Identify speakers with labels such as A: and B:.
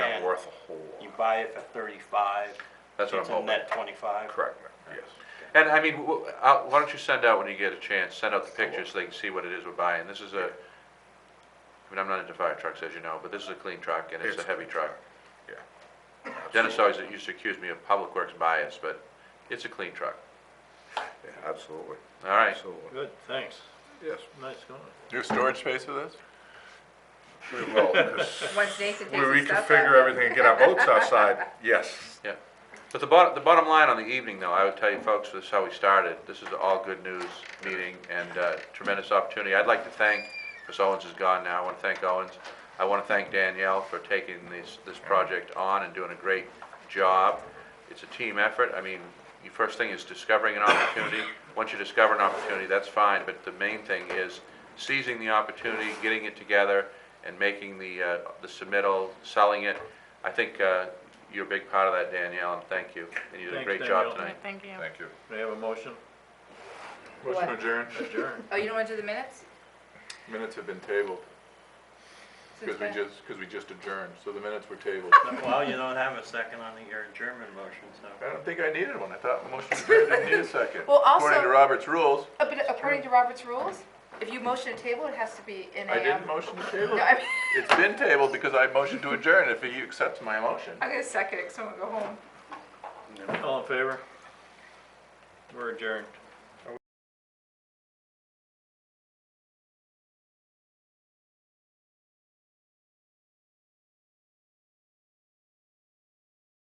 A: buy it for thirty-five.
B: That's what I'm hoping.
A: It's a net twenty-five.
B: Correct, yes. And I mean, wh- uh, why don't you send out when you get a chance, send out the pictures so they can see what it is we're buying. This is a, I mean, I'm not into fire trucks, as you know, but this is a clean truck and it's a
C: It's
B: heavy truck.
C: Yeah.
B: Dennis always used to accuse me of public works bias, but it's a clean truck.
C: Yeah, absolutely,
B: All right,
C: absolutely,
D: Good, thanks.
C: yes.
D: Nice going.
E: Your storage space for this?
C: We will, 'cause
F: Once Nathan
C: we
F: takes his stuff
C: reconfigure
F: out.
C: everything and get our boats outside, yes.
B: yeah. But the bottom, the bottom line on the evening though, I would tell you folks, this is how we started. This is all good news meeting and uh, tremendous opportunity. I'd like to thank, because Owens is gone now, I want to thank Owens. I want to thank Danielle for taking this, this project on and doing a great job. It's a team effort. I mean, the first thing is discovering an opportunity. Once you discover an opportunity, that's fine, but the main thing is seizing the opportunity, getting it together, and making the, uh, the submittal, selling it. I think, uh, you're a big part of that, Danielle, and thank you. And you did a
D: Thanks,
B: great job
D: Danielle.
B: tonight.
G: Thank you.
E: Thank you.
D: May I have a motion?
E: Motion
F: What?
E: adjourned.
D: Adjourn.
F: Oh, you don't want to do the minutes?
E: Minutes have been tabled,
F: Since
E: because we
F: when?
E: just, because we just adjourned, so the minutes were tabled.
A: Well, you don't have a second on your German motion, so.
E: I don't think I needed one, I thought the motion adjourned didn't need a second.
F: Well,
E: According
F: also-
E: to Robert's rules,
F: Uh, But according to Robert's rules, if you motion a table, it has to be in a.
E: I didn't
F: um,
E: motion to table. it.
F: No, I mean,
E: It's been tabled because I motioned to adjourn, if he accepts my motion.
F: I'm gonna second it, 'cause I'm gonna go home.
D: All in favor? We're adjourned.